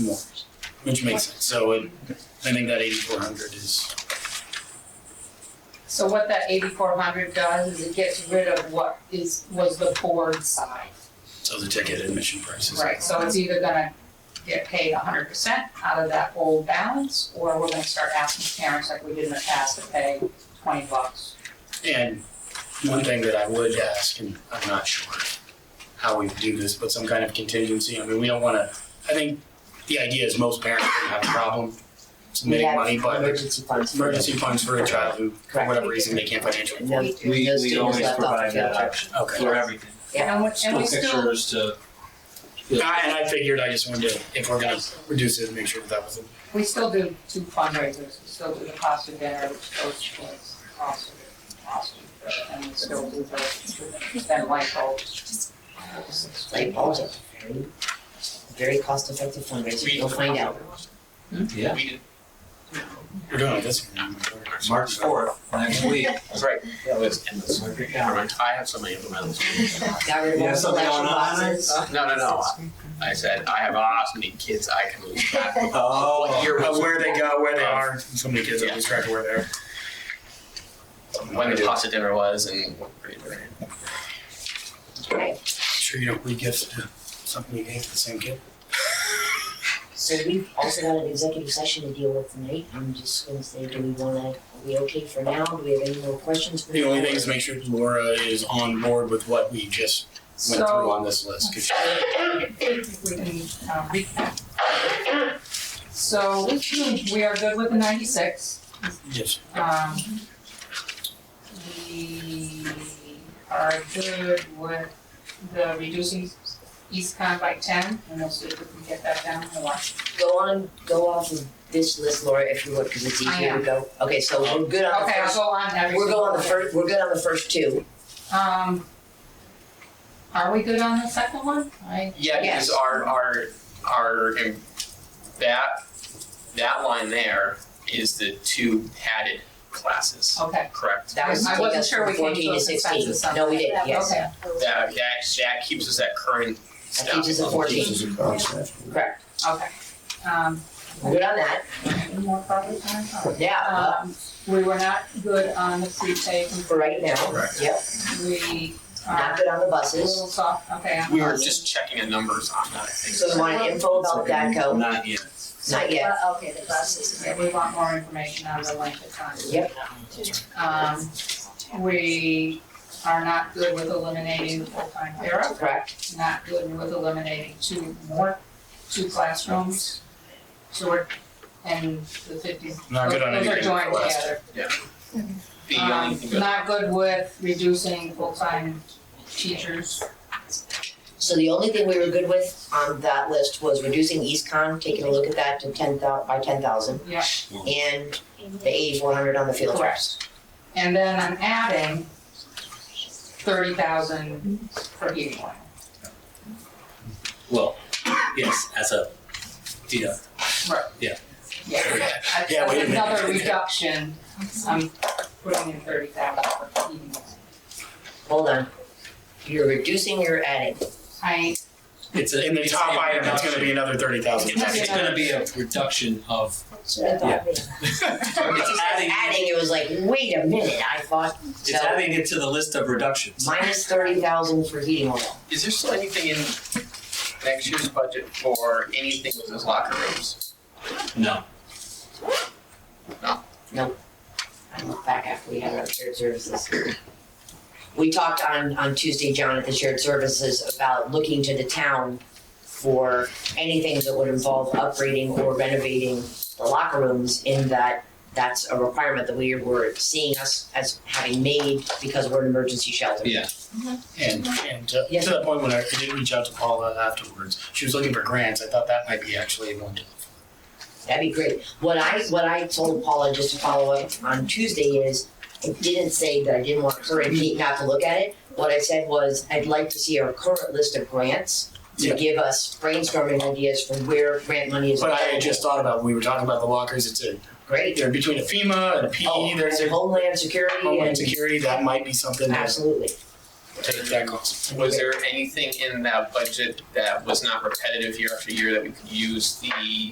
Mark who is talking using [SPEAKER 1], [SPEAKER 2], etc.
[SPEAKER 1] more, which makes sense. So it, I think that eighty-four hundred is,
[SPEAKER 2] So what that eighty-four hundred does is it gets rid of what is, was the board side,
[SPEAKER 1] so the ticket admission prices.
[SPEAKER 2] right? So it's either gonna get paid hundred percent out of that old balance, or we're gonna start asking parents like we did in the past to pay twenty bucks.
[SPEAKER 1] And one thing that I would ask, and I'm not sure how we do this, but some kind of contingency. I mean, we don't wanna, I think the idea is most parents don't have a problem submitting
[SPEAKER 2] Yeah.
[SPEAKER 1] money, but
[SPEAKER 3] Emergency funds.
[SPEAKER 1] emergency funds for a child who, for whatever reason, they can't financially.
[SPEAKER 3] And then
[SPEAKER 4] We,
[SPEAKER 3] those
[SPEAKER 4] we
[SPEAKER 3] students
[SPEAKER 4] always
[SPEAKER 3] left off
[SPEAKER 4] provide
[SPEAKER 3] the
[SPEAKER 4] that
[SPEAKER 3] other.
[SPEAKER 4] option
[SPEAKER 1] Okay.
[SPEAKER 4] for everything.
[SPEAKER 2] And we, and
[SPEAKER 4] School
[SPEAKER 2] we still,
[SPEAKER 4] pictures to.
[SPEAKER 1] I- And I figured, I just wanted to, if we're gonna reduce it, make sure that that was,
[SPEAKER 2] we still do two fundraisers, we still do the cost of dinner, which goes towards the cost of, cost of, and we still do the, then light bulbs.
[SPEAKER 3] Light bulbs are very, very cost effective fundraiser, you'll find out.
[SPEAKER 4] Yeah.
[SPEAKER 1] we're doing it this.
[SPEAKER 4] March fourth, next week. Oh.
[SPEAKER 5] That's right.
[SPEAKER 4] That was in the
[SPEAKER 5] I have so many implementals.
[SPEAKER 3] Got rid of
[SPEAKER 4] You have
[SPEAKER 3] all the Uh,
[SPEAKER 4] something
[SPEAKER 3] collection
[SPEAKER 4] on Onyx?
[SPEAKER 3] boxes.
[SPEAKER 5] No, no, no. I said I have awesome many kids I can lose.
[SPEAKER 4] Oh.
[SPEAKER 5] Here
[SPEAKER 1] Uh,
[SPEAKER 5] was Oh.
[SPEAKER 1] where they go, where they are, so many kids have lose track of where they are.
[SPEAKER 5] when the pasta dinner was and.
[SPEAKER 1] Sure you don't re-gift to something you gave to the same kid?
[SPEAKER 3] So we've also got an executive session to deal with tonight, I'm just gonna say, do we wanna, are we okay for now, do we have any more questions? for
[SPEAKER 1] The only
[SPEAKER 3] now?
[SPEAKER 1] thing is make sure Laura is on board with what we just went through
[SPEAKER 2] So,
[SPEAKER 1] on this list. 'cause
[SPEAKER 2] we can, um, recap. So, we are good with the ninety-six,
[SPEAKER 1] she- Yes,
[SPEAKER 2] um. We are good with the reducing Eastcon by ten, and we'll see if we can get that down to one.
[SPEAKER 3] Go on, go off of this list, Laura, if you would, cause it's
[SPEAKER 2] I
[SPEAKER 3] easier
[SPEAKER 2] am.
[SPEAKER 3] to go, okay, so we're good on the
[SPEAKER 2] Okay, I'll
[SPEAKER 3] first,
[SPEAKER 2] go on every.
[SPEAKER 3] we're good on the
[SPEAKER 2] single
[SPEAKER 3] first, we're good on the first two.
[SPEAKER 2] one. Um, are we good on the second one? I,
[SPEAKER 5] Yeah, because
[SPEAKER 2] Yes.
[SPEAKER 5] our, our, our, um, that, that line there is the two padded classes,
[SPEAKER 2] okay,
[SPEAKER 5] correct?
[SPEAKER 3] Oh. That was
[SPEAKER 2] I
[SPEAKER 3] taking
[SPEAKER 2] wasn't
[SPEAKER 3] us
[SPEAKER 2] sure
[SPEAKER 3] from
[SPEAKER 2] we came to
[SPEAKER 3] fourteen
[SPEAKER 2] a
[SPEAKER 3] to sixteen,
[SPEAKER 2] consensus on
[SPEAKER 3] no, we
[SPEAKER 2] that.
[SPEAKER 3] did, yes,
[SPEAKER 2] okay,
[SPEAKER 5] That, that, that keeps us at current
[SPEAKER 3] that
[SPEAKER 5] stuff.
[SPEAKER 3] keeps us at fourteen, correct,
[SPEAKER 2] okay. Um,
[SPEAKER 3] we're good on that,
[SPEAKER 2] any more public comment? All right.
[SPEAKER 3] yeah, uh,
[SPEAKER 2] Um, we were not good on the pre-K,
[SPEAKER 3] for right now,
[SPEAKER 5] Correct.
[SPEAKER 3] yep,
[SPEAKER 2] we
[SPEAKER 3] not
[SPEAKER 2] are
[SPEAKER 3] good on the
[SPEAKER 2] a
[SPEAKER 3] buses,
[SPEAKER 2] little soft, okay, on
[SPEAKER 5] We were
[SPEAKER 2] buses.
[SPEAKER 5] just checking the numbers on that, I think.
[SPEAKER 3] so we want info about DACO,
[SPEAKER 5] Not yet.
[SPEAKER 3] not yet,
[SPEAKER 2] Uh, Okay, the buses, yeah, we want more information on the length of time.
[SPEAKER 3] Yep.
[SPEAKER 2] Um, we are not good with eliminating full-time para,
[SPEAKER 3] correct,
[SPEAKER 2] not good with eliminating two more, two classrooms. So we're, and the fifty,
[SPEAKER 1] not good on
[SPEAKER 2] those are
[SPEAKER 1] anything with
[SPEAKER 2] joined
[SPEAKER 1] the list.
[SPEAKER 2] together.
[SPEAKER 5] The only
[SPEAKER 2] Um,
[SPEAKER 5] thing that-
[SPEAKER 2] not good with reducing full-time teachers.
[SPEAKER 3] so the only thing we were good with on that list was reducing EastCon, taking a look at that to ten thou, by ten thousand.
[SPEAKER 2] Yeah.
[SPEAKER 3] And the eighty-four hundred on the field trips,
[SPEAKER 2] And then I'm adding thirty thousand for heating oil.
[SPEAKER 6] Well, yes, as a deduct.
[SPEAKER 2] Yeah, that's
[SPEAKER 1] Yeah, wait a
[SPEAKER 2] that's
[SPEAKER 1] minute.
[SPEAKER 2] another reduction, I'm putting in thirty thousand for heating oil.
[SPEAKER 3] hold on, you're reducing, you're adding,
[SPEAKER 2] I,
[SPEAKER 6] It's a.
[SPEAKER 1] In the
[SPEAKER 6] it's
[SPEAKER 1] top
[SPEAKER 6] a
[SPEAKER 1] item, it's gonna be another thirty thousand.
[SPEAKER 6] reduction. It's actually gonna be a reduction of, Yeah.
[SPEAKER 3] When
[SPEAKER 6] it's
[SPEAKER 3] she said
[SPEAKER 6] adding,
[SPEAKER 3] adding, it was like, wait a minute, I thought,
[SPEAKER 6] it's
[SPEAKER 3] so
[SPEAKER 6] adding it to the list of reductions.
[SPEAKER 3] minus thirty thousand for heating oil.
[SPEAKER 5] Is there still anything in next year's budget for anything with those locker rooms?
[SPEAKER 6] No,
[SPEAKER 3] I look back after we had our shared services. We talked on, on Tuesday, John, at the shared services about looking to the town for anything that would involve upgrading or renovating the locker rooms in that that's a requirement that we were seeing us as having made because we're an emergency shelter.
[SPEAKER 6] yeah,
[SPEAKER 1] And, and to
[SPEAKER 3] Yes.
[SPEAKER 1] to the point when I I did reach out to Paula afterwards, she was looking for grants. I thought that might be actually one to
[SPEAKER 3] That'd be great. What I, what I told Paula, just to follow up on Tuesday is, I didn't say that I didn't want her and Pete not to look at it. What I said was, I'd like to see our current list of grants
[SPEAKER 1] Yeah.
[SPEAKER 3] to give us brainstorming ideas for where grant money is
[SPEAKER 1] But I had
[SPEAKER 3] available.
[SPEAKER 1] just thought about, we were talking about the lockers, it's a,
[SPEAKER 3] Great.
[SPEAKER 1] they're between a FEMA and a PE,
[SPEAKER 3] Oh,
[SPEAKER 1] E, there's a
[SPEAKER 3] Homeland Security
[SPEAKER 1] Homeland
[SPEAKER 3] and,
[SPEAKER 1] Security, that might be something that
[SPEAKER 3] absolutely.
[SPEAKER 1] take that cost.
[SPEAKER 5] Was there anything in that budget that was not repetitive year after year that we could use the